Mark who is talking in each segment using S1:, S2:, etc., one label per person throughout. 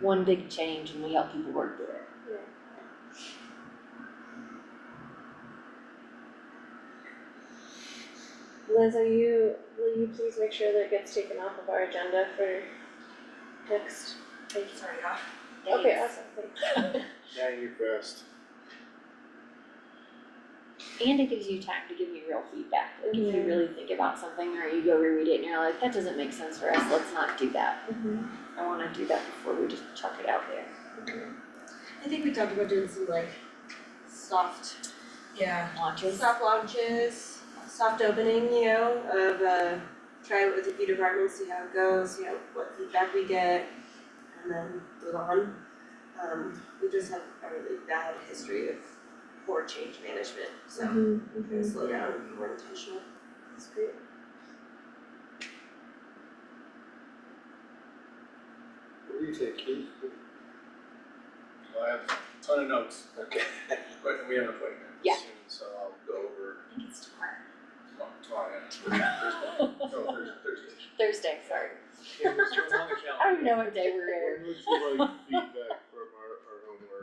S1: one big change and we help people work through it.
S2: Liz, are you, will you please make sure that it gets taken off of our agenda for next?
S3: It's already off.
S2: Okay,
S1: Thanks.
S2: awesome, thank
S4: Now you're fast.
S1: And it gives you time to give me real feedback, like if you
S2: Mhm.
S1: really think about something or you go reread it and you're like, that doesn't make sense for us, let's not do that.
S2: you.
S1: I wanna do that before we just chuck it out there.
S3: I think we talked about doing some like soft, yeah,
S1: Launches.
S3: soft launches, soft opening, you know, of uh try it with a few departments, see how it goes, you know, what feedback we get, and then move on. Um, we just have a really bad history of poor change management, so
S2: Mm-hmm.
S3: we're gonna slow down and be more intentional.
S2: That's great.
S4: What do you think, Keith? Well, I have a ton of notes, okay, but we have an appointment
S1: Yeah.
S4: soon, so I'll go over
S1: I think it's tomorrow.
S4: tomorrow, tomorrow, yeah. Thursday, no, Thursday, Thursday.
S1: Thursday, sorry.
S4: Yeah, it's on the calendar.
S1: I don't even know what day we're in.
S4: When would you like feedback from our, our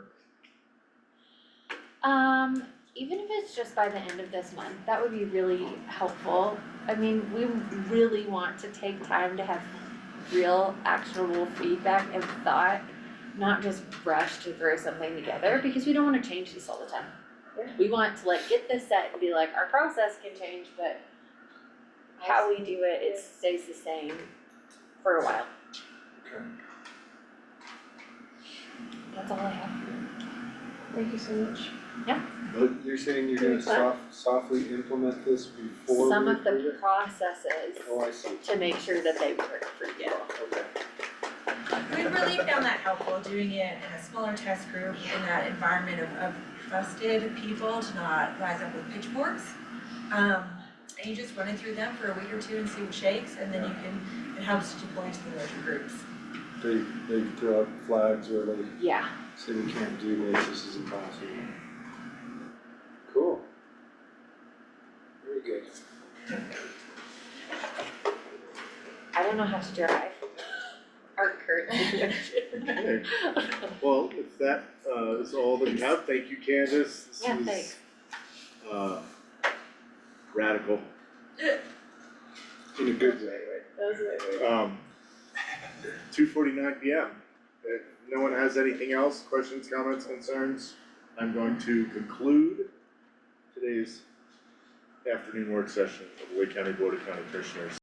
S4: homework?
S1: Um, even if it's just by the end of this month, that would be really helpful. I mean, we really want to take time to have real actionable feedback and thought, not just rush to throw something together, because we don't wanna change this all the time.
S2: Yeah.
S1: We want to like get this set and be like, our process can change, but how we do it, it stays the same for a while.
S4: Okay.
S1: That's all I have.
S2: Thank you so much.
S4: But you're saying you're
S2: gonna
S4: gonna
S2: Feedback.
S4: soft, softly implement this before
S1: Some of the processes
S4: Oh, I see,
S1: to make sure that they work for you.
S4: okay.
S3: We really found that helpful, doing it in a smaller test group, in that environment of, of trusted people to not rise up with pitchforks. Um, and you just run it through them for a week or two and see what shakes, and then you can, it helps to deploy to the larger groups.
S4: They, they throw out flags or they
S1: Yeah,
S4: say we can't do this, this is impossible. Cool. Very good.
S1: I don't know how to drive. Or Kurt.
S5: Okay, well, if that uh is all that we have, thank you Candace, this
S1: Yeah,
S5: was
S1: thanks.
S5: uh radical,
S4: In a good way, right?
S2: That was it.
S5: um two forty nine P M. If no one has anything else, questions, comments, concerns, I'm going to conclude today's afternoon work session of the Lake County Board of County Commissioners.